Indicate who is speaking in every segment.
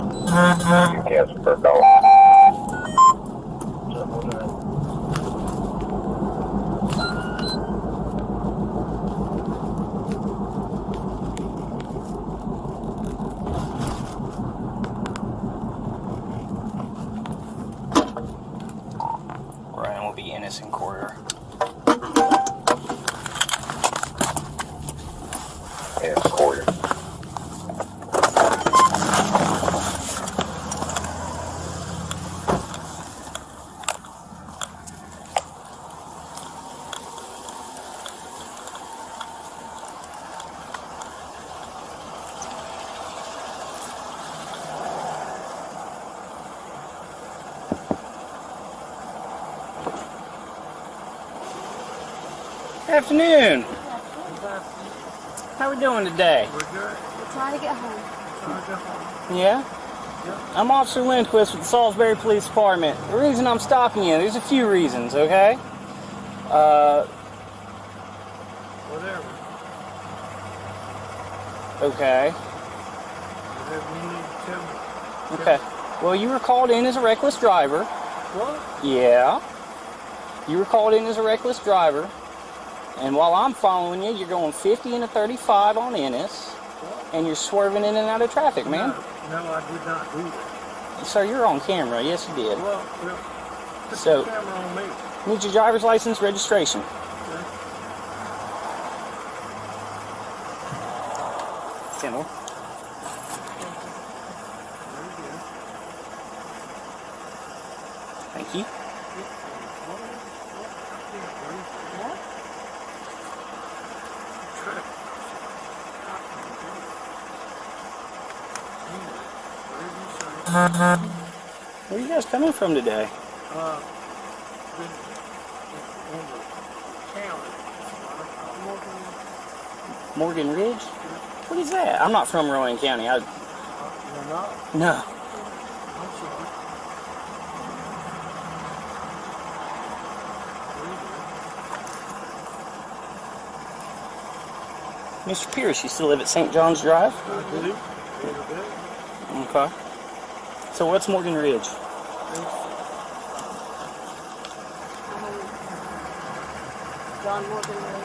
Speaker 1: You can't for a dollar.
Speaker 2: Ryan will be innocent quarter.
Speaker 1: and a quarter.
Speaker 2: Afternoon. How we doing today?
Speaker 3: We're trying to get home.
Speaker 2: Yeah? I'm Officer Lindquist with the Salisbury Police Department. The reason I'm stopping you, there's a few reasons, okay? Uh,
Speaker 4: Whatever.
Speaker 2: okay.
Speaker 4: Whatever you need to tell me.
Speaker 2: Okay. Well, you were called in as a reckless driver.
Speaker 4: What?
Speaker 2: Yeah. You were called in as a reckless driver. And while I'm following you, you're going 50 and a 35 on Ennis. And you're swerving in and out of traffic, man.
Speaker 4: No, no, I did not do that.
Speaker 2: Sir, you're on camera. Yes, you did.
Speaker 4: Well, well, put
Speaker 2: So-
Speaker 4: the camera on me.
Speaker 2: Need your driver's license registration.
Speaker 4: Okay?
Speaker 2: Kendall.
Speaker 4: There you go.
Speaker 2: Thank you.
Speaker 4: What? What? I can't breathe. Try to- I can't breathe. Anyway, whatever you say.
Speaker 2: Where are you guys coming from today?
Speaker 4: Uh, been in the county. I'm working
Speaker 2: Morgan Ridge? What is that? I'm not from Rowan County. I
Speaker 4: in Renata.
Speaker 2: no.
Speaker 4: I'm sorry.
Speaker 2: Mr. Pierce, you still live at St. John's Drive?
Speaker 4: I do. Every day.
Speaker 2: Okay. So what's Morgan Ridge?
Speaker 3: Um, John Morgan Road.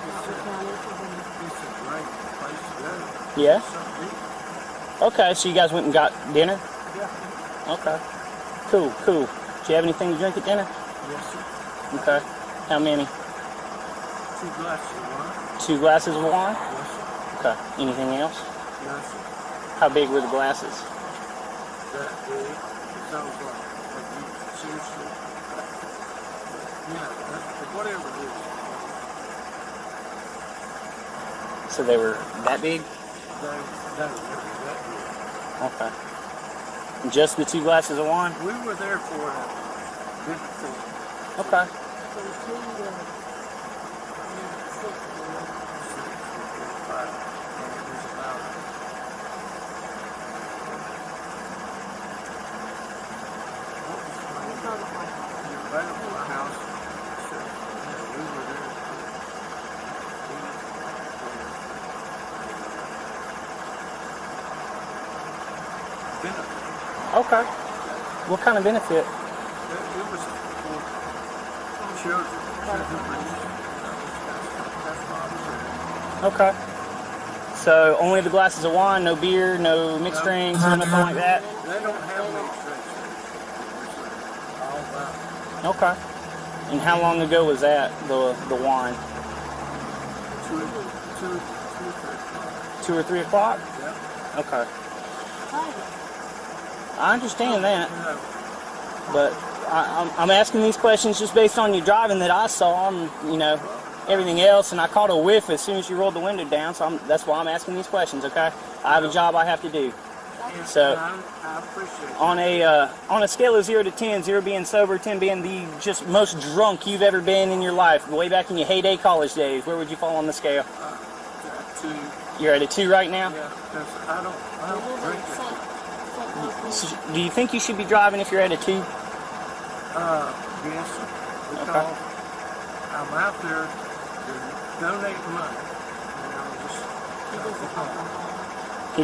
Speaker 3: Knox County, Virginia.
Speaker 4: It's a great place to go.
Speaker 2: Yeah?
Speaker 4: Something to eat.
Speaker 2: Okay, so you guys went and got dinner?
Speaker 4: Yeah.
Speaker 2: Okay. Cool, cool. Do you have anything to drink at dinner?
Speaker 4: Yes, sir.
Speaker 2: Okay. How many?
Speaker 4: Two glasses of wine.
Speaker 2: Two glasses of wine?
Speaker 4: Yes, sir.
Speaker 2: Okay. Anything else?
Speaker 4: Yes, sir.
Speaker 2: How big were the glasses?
Speaker 4: That big. It sounds like, like you seriously. Yeah, that, whatever it is.
Speaker 2: So they were that big?
Speaker 4: They, they were that big.
Speaker 2: Okay. Just the two glasses of wine?
Speaker 4: We were there for a good thing.
Speaker 2: Okay.
Speaker 3: From two to um, six, you know.
Speaker 4: Five. And it was about
Speaker 3: We saw the house.
Speaker 4: the available house. So, yeah, we were there. We, uh, benefit.
Speaker 2: Okay. What kind of benefit?
Speaker 4: It, it was for children. children that's, that's why I was there.
Speaker 2: Okay. So only the glasses of wine, no beer, no mixed drinks, or nothing like that.
Speaker 4: They don't have no trace. All about
Speaker 2: Okay. And how long ago was that? The the wine,
Speaker 4: two, two, two thirty.
Speaker 2: two or three o'clock?
Speaker 4: Yep.
Speaker 2: Okay.
Speaker 3: Hi.
Speaker 2: I understand that,
Speaker 4: No,
Speaker 2: but I, I'm I'm asking these questions just based on your driving that I saw and you know everything else, and I caught a whiff as soon as you rolled the window down. So I'm, that's why I'm asking these questions. Okay. I have a job I have to do.
Speaker 4: and-
Speaker 2: So-
Speaker 4: and I, I appreciate it.
Speaker 2: on a uh, on a scale of zero to ten, zero being sober, ten being the just most drunk you've ever been in your life, way back in your heyday college days, where would you fall on the scale?
Speaker 4: that too.
Speaker 2: You're at a two right now.
Speaker 4: Yeah, 'cause I don't, I
Speaker 3: We
Speaker 4: don't
Speaker 3: live on
Speaker 4: drink
Speaker 3: St.
Speaker 4: it.
Speaker 3: St. Louis.
Speaker 2: So do you think you should be driving if you're at a two?
Speaker 4: Uh, yes, because I'm out there to donate money. And I'm just,
Speaker 3: He doesn't have alcohol.